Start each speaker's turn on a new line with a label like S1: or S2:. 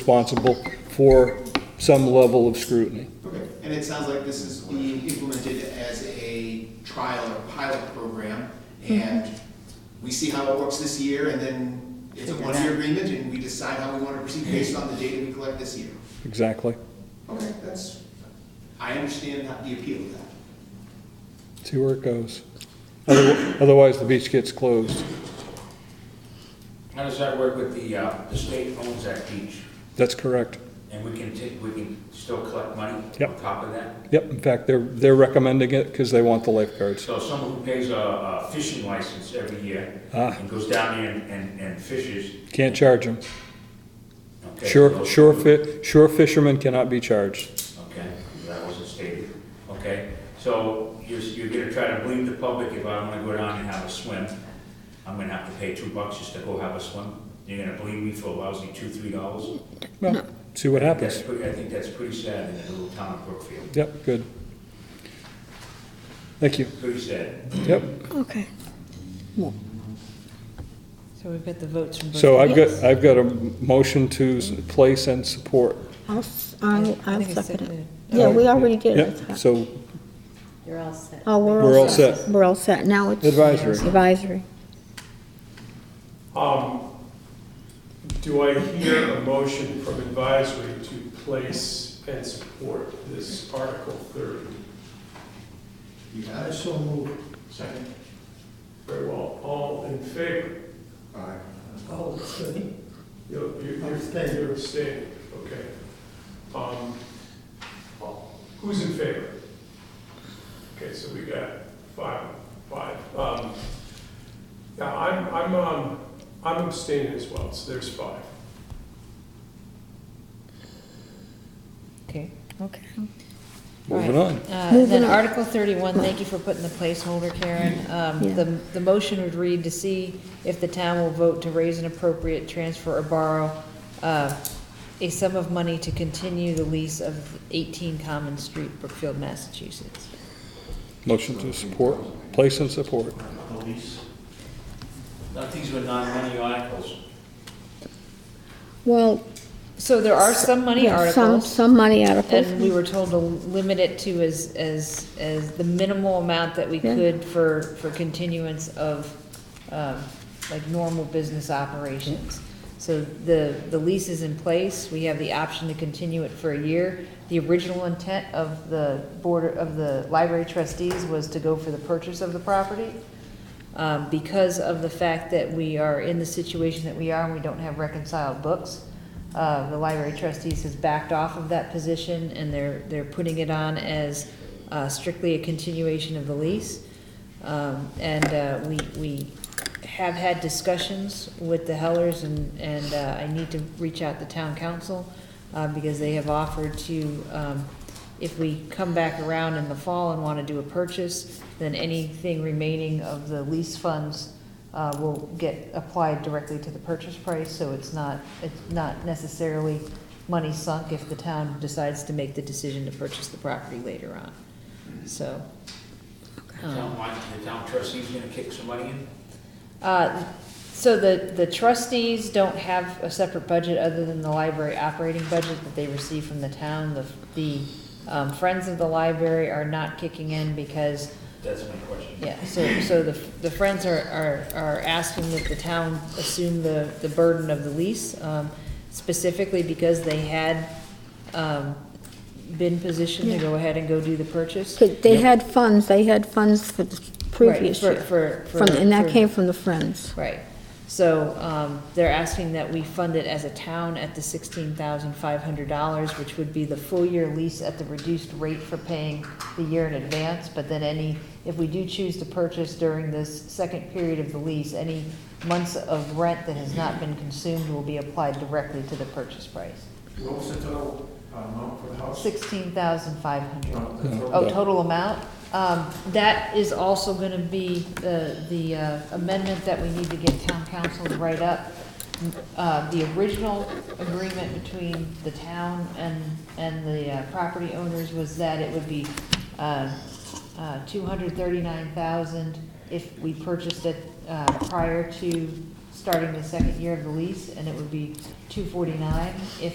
S1: responsible for some level of scrutiny.
S2: Okay, and it sounds like this is being implemented as a trial or pilot program,
S3: Mm-hmm.
S2: and we see how it works this year, and then it's a
S3: Figure it
S2: one-year
S3: out. Mm-hmm.
S2: agreement, and we decide how we want to proceed based on the data we collect this year.
S1: Exactly.
S2: Okay, that's, I understand how- the appeal of that.
S1: See where it goes. Other- Otherwise, the beach gets closed.
S4: How does that work with the, uh, the state owns that beach,
S1: That's correct.
S4: and we can take, we can still collect money
S1: Yep.
S4: on top of that?
S1: Yep, in fact, they're, they're recommending it because they want the lifeguards.
S4: So someone who pays a, a fishing license every year,
S1: Ah.
S4: and goes down there and, and, and fishes,
S1: Can't charge them.
S4: okay?
S1: Sure,
S4: those-
S1: sure fi, sure fishermen cannot be charged.
S4: Okay, that wasn't stated, okay? So you're, you're gonna try to blame the public, if I wanna go down and have a swim, I'm gonna have to pay two bucks just to go have a swim? You're gonna blame me for a lousy two, three dollars?
S1: Well, see what
S4: That's
S1: happens.
S4: pretty, I think that's pretty sad in the little town of Brookfield,
S1: Yep, good. Thank you.
S4: pretty sad.
S1: Yep.
S5: Okay.
S3: So we've got the votes from both.
S1: So I've got, I've got a motion to s- place and support.
S5: I'll, s- I'll,
S3: I
S5: I'll
S3: think
S5: second
S3: I
S5: it.
S3: seconded it.
S5: Yeah, we already did it.
S1: Yep, so
S6: You're all set.
S5: Oh, we're all.
S1: We're all set.
S5: We're all set. Now it's.
S1: Advisory.
S5: Advisory.
S7: Um, do I hear a motion from advisory to place and support this Article thirty?
S2: You got it?
S7: so move. Second. Very well, all in favor?
S2: Aye.
S7: All abstaining. You're, you're, you're abstaining, okay. Um, who's in favor? Okay, so we got five, five. Um, now, I'm, I'm, um, I'm abstaining as well, so there's five.
S3: Okay.
S5: Okay.
S1: moving on.
S3: Uh, Then
S5: Moving on.
S3: Article 31, thank you for putting the placeholder, Karen. Um,
S5: Yeah.
S3: The the motion would read to see if the town will vote to raise an appropriate transfer or borrow uh, a sum of money to continue the lease of 18 Common Street, Brookfield, Massachusetts.
S1: Motion to support, place and support.
S4: Now, these were non-money articles.
S5: Well,
S3: So there are some money
S5: yeah, some,
S3: articles,
S5: some money articles.
S3: and we were told to limit it to as, as, as the minimal amount that we
S5: Yeah.
S3: could for, for continuance of, um, like, normal business operations. So the, the lease is in place, we have the option to continue it for a year. The original intent of the board, of the library trustees was to go for the purchase of the property. Um, because of the fact that we are in the situation that we are and we don't have reconciled books, uh, the library trustees has backed off of that position and they're, they're putting it on as uh, strictly a continuation of the lease. Um, and, uh, we, we have had discussions with the Hellers and, and, uh, I need to reach out to town council, uh, because they have offered to, um, if we come back around in the fall and wanna do a purchase, then anything remaining of the lease funds, uh, will get applied directly to the purchase price, so it's not, it's not necessarily money sunk if the town decides to make the decision to purchase the property later on, so.
S4: The
S3: um,
S4: town line- the town trustee's gonna kick some money in?
S3: Uh, So the, the trustees don't have a separate budget other than the library operating budget that they receive from the town. The, the um, Friends of the Library are not kicking in because,
S4: That's my question.
S3: yeah, so, so the, the Friends are, are, are asking that the town assume the, the burden of the lease, um, specifically because they had um, been positioned to go ahead and go do the purchase.
S5: 'Cause They had funds, they had funds for the previous
S3: Right,
S5: year.
S3: For, for.
S5: From, and that
S3: for-
S5: came from the Friends.
S3: Right. So um, they're asking that we fund it as a town at the sixteen thousand five hundred dollars, which would be the full year lease at the reduced rate for paying the year in advance. But then any, if we do choose to purchase during this second period of the lease, any months of rent that has not been consumed will be applied directly to the purchase price.
S8: What was the total uh, amount for the house?
S3: Sixteen thousand five hundred.
S8: No, the total-
S3: Oh, total amount? Um, that is also gonna be the, the uh, amendment that we need to get town council to write up. Uh, the original agreement between the town and, and the uh, property owners was that it would be, uh, uh, two hundred thirty-nine thousand if we purchased it, uh, prior to starting the second year of the lease, and it would be two forty-nine if